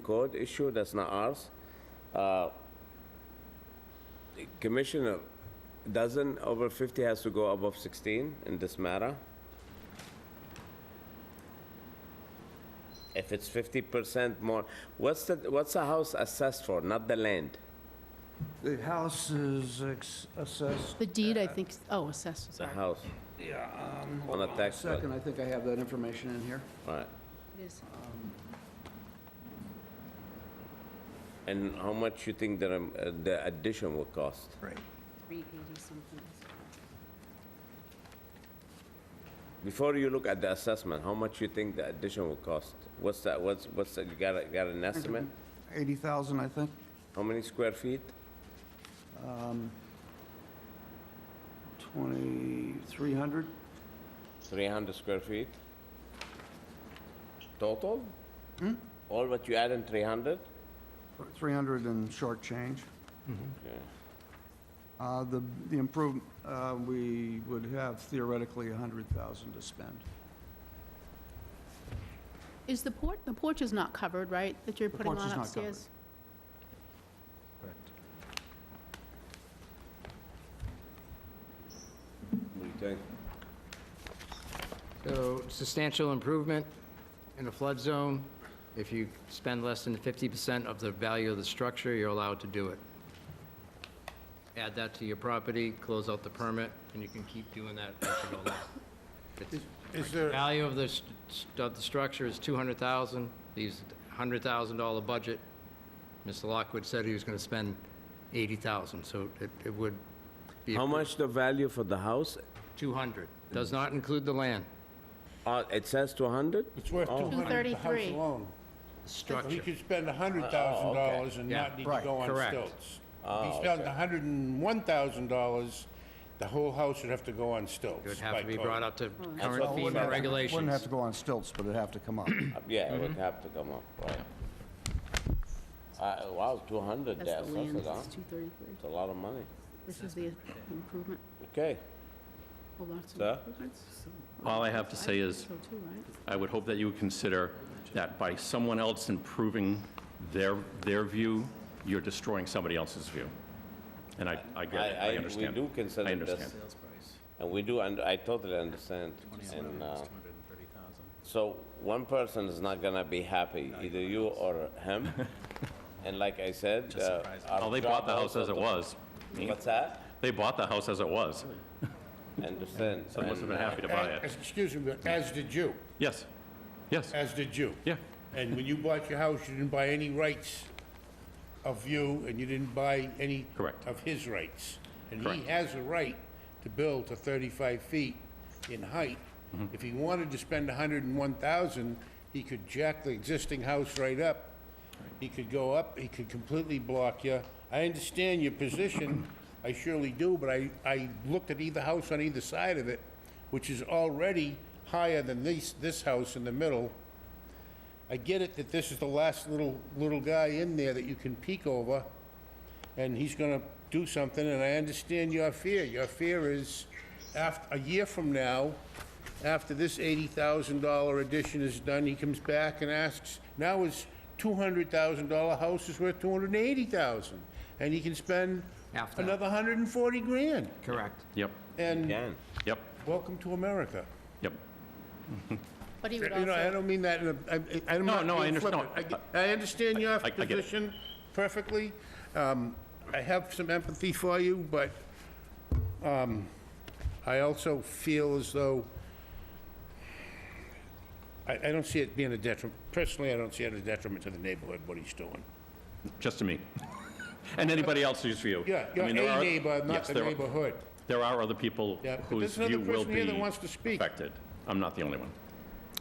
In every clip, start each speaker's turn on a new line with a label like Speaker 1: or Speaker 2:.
Speaker 1: code issue, that's not ours. Uh, Commissioner, doesn't over 50 has to go above 16 in this matter? If it's 50% more, what's the, what's the house assessed for, not the land?
Speaker 2: The house is ex- assessed,
Speaker 3: The deed, I think, oh, assessed,
Speaker 1: The
Speaker 3: sorry.
Speaker 1: house,
Speaker 2: yeah, um,
Speaker 1: on
Speaker 2: hold
Speaker 1: a
Speaker 2: on a
Speaker 1: tax bill?
Speaker 2: second, I think I have that information in here.
Speaker 1: Right.
Speaker 3: It is.
Speaker 1: And how much you think that um, uh, the addition will cost?
Speaker 4: Right.
Speaker 3: 380 something.
Speaker 1: Before you look at the assessment, how much you think the addition will cost? What's that, what's, what's, that? you got, a- got an estimate?
Speaker 2: 80,000, I think.
Speaker 1: How many square feet?
Speaker 2: Um, 2,300?
Speaker 1: 300 square feet? Total? Hmm? All what you add in 300?
Speaker 2: 300 and short change.
Speaker 1: Okay.
Speaker 2: Uh, The the improve, uh, we would have theoretically 100,000 to spend.
Speaker 3: Is the porch, the porch is not covered, right, that you're
Speaker 2: The
Speaker 3: putting
Speaker 2: porch is
Speaker 3: on
Speaker 2: not covered.
Speaker 3: upstairs?
Speaker 1: What do you think?
Speaker 5: So substantial improvement in a flood zone. If you spend less than 50% of the value of the structure, you're allowed to do it. Add that to your property, close out the permit, and you can keep doing that. as you go along. It's-
Speaker 4: Is there,
Speaker 5: Value of the, st- st- of the structure is 200,000, leaves $100,000 budget. Mr. Lockwood said he was going to spend 80,000, so it, it would be.
Speaker 1: How much the value for the house?
Speaker 5: 200, does not include the land,
Speaker 1: Uh, It says 200?
Speaker 4: it's worth
Speaker 1: Oh.
Speaker 4: 200, the house
Speaker 3: 233.
Speaker 4: alone.
Speaker 5: structure.
Speaker 4: He could spend $100,000 and
Speaker 5: Oh, Yeah.
Speaker 4: not need to
Speaker 2: Right,
Speaker 4: go on
Speaker 5: correct.
Speaker 4: stilts. If
Speaker 1: Oh,
Speaker 4: he spent $101,000, the whole house would have to go on stilts.
Speaker 5: It would have
Speaker 4: by
Speaker 5: to be
Speaker 4: code.
Speaker 5: brought up to current
Speaker 1: what we have.
Speaker 5: FEMA
Speaker 2: Wouldn't have
Speaker 5: regulations.
Speaker 2: to go on stilts, but it'd have to come up.
Speaker 1: Uh, Yeah, it would have to come up, right. Uh, Wow, 200,
Speaker 3: That's
Speaker 1: that's,
Speaker 3: the land,
Speaker 1: that's a
Speaker 3: it's
Speaker 1: lot.
Speaker 3: 233.
Speaker 1: It's a lot of money.
Speaker 3: This is the improvement,
Speaker 1: Okay,
Speaker 3: well, that's
Speaker 1: Sir?
Speaker 3: the improvements.
Speaker 6: All I have to say is-
Speaker 3: So too, right?
Speaker 6: I would hope that you would consider that by someone else improving their, their view, you're destroying somebody else's view. And I, I
Speaker 1: I,
Speaker 6: get
Speaker 1: I,
Speaker 6: it, I
Speaker 1: we
Speaker 6: understand.
Speaker 1: do
Speaker 6: I
Speaker 1: consider this.
Speaker 6: understand.
Speaker 1: And we do, and I totally understand. And, uh, so one person is not gonna be happy, either you or him. And like I said, uh. our
Speaker 6: Well, Oh, they
Speaker 1: job
Speaker 6: bought the house
Speaker 1: also
Speaker 6: as it
Speaker 1: to-
Speaker 6: was.
Speaker 1: What's that?
Speaker 6: They bought the house as it was.
Speaker 1: I Understand.
Speaker 6: So they must have
Speaker 1: and,
Speaker 6: been
Speaker 1: uh,
Speaker 6: happy to buy it.
Speaker 4: As- Excuse me, but as did you,
Speaker 6: Yes, yes,
Speaker 4: as did you.
Speaker 6: yeah.
Speaker 4: And when you bought your house, you didn't buy any rights of you, and you didn't buy any.
Speaker 6: Correct.
Speaker 4: Of his rights. And he
Speaker 6: Correct.
Speaker 4: has a right to build to 35 feet in height.
Speaker 6: Mm-hmm.
Speaker 4: If he wanted to spend 101,000, he could jack the existing house right up. He could go up, he could completely block you. I understand your position, I surely do, but I, I looked at either house on either side of it, which is already higher than this, this house in the middle. I get it that this is the last little, little guy in there that you can peek over, and he's gonna do something, and I understand your fear. Your fear is, after, a year from now, after this eighty thousand dollar addition is done, he comes back and asks, now his two hundred thousand dollar house is worth two hundred and eighty thousand, and he can spend
Speaker 5: Half that.
Speaker 4: another hundred and forty grand.
Speaker 5: Correct.
Speaker 6: Yep,
Speaker 4: And
Speaker 1: Again,
Speaker 6: yep,
Speaker 4: welcome to America.
Speaker 6: yep.
Speaker 3: But he
Speaker 4: You
Speaker 3: would
Speaker 4: know, I
Speaker 3: also,
Speaker 4: don't mean that in a, I, I- I'm
Speaker 6: No,
Speaker 4: not
Speaker 6: no, I
Speaker 4: being
Speaker 6: understand.
Speaker 4: flippant. I get- I understand your
Speaker 6: I- I get it.
Speaker 4: position perfectly. Um, I have some empathy for you, but, um, I also feel as though I, I don't see it being a detriment, personally, I don't see it as a detriment to the neighborhood, what he's doing.
Speaker 6: Just to me. And anybody else whose view.
Speaker 4: Yeah,
Speaker 6: I
Speaker 4: you're a
Speaker 6: mean, there are-
Speaker 4: neighbor, not
Speaker 6: yes,
Speaker 4: the
Speaker 6: there are-
Speaker 4: neighborhood.
Speaker 6: There are other people
Speaker 4: Yeah, but
Speaker 6: whose
Speaker 4: there's another
Speaker 6: view will
Speaker 4: person here that
Speaker 6: be
Speaker 4: wants to speak.
Speaker 6: affected. I'm not the only one.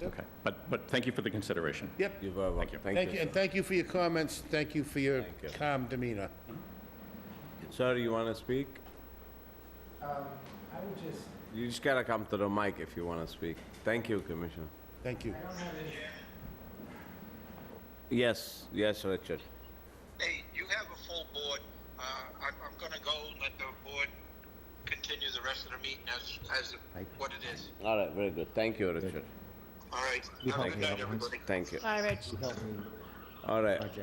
Speaker 6: Okay, but, but thank you for the consideration.
Speaker 4: Yep,
Speaker 1: you're very welcome.
Speaker 6: you.
Speaker 4: thank you, and thank you for your comments, thank you for your
Speaker 1: Thank you.
Speaker 4: calm demeanor.
Speaker 1: Sir, you wanna speak?
Speaker 7: Um, I would just,
Speaker 1: You just gotta come to the mic if you wanna speak. Thank you, Commissioner.
Speaker 4: Thank you.
Speaker 1: Yes, yes, Richard.
Speaker 8: Hey, you have a full board. Uh, I'm, I'm gonna go let the board continue the rest of the meeting as, as what it is.
Speaker 1: All right, very good. Thank you, Richard.
Speaker 8: All right. Have a good night, everybody.
Speaker 1: Thank you.
Speaker 3: all right, Rich,
Speaker 9: All right.
Speaker 1: project.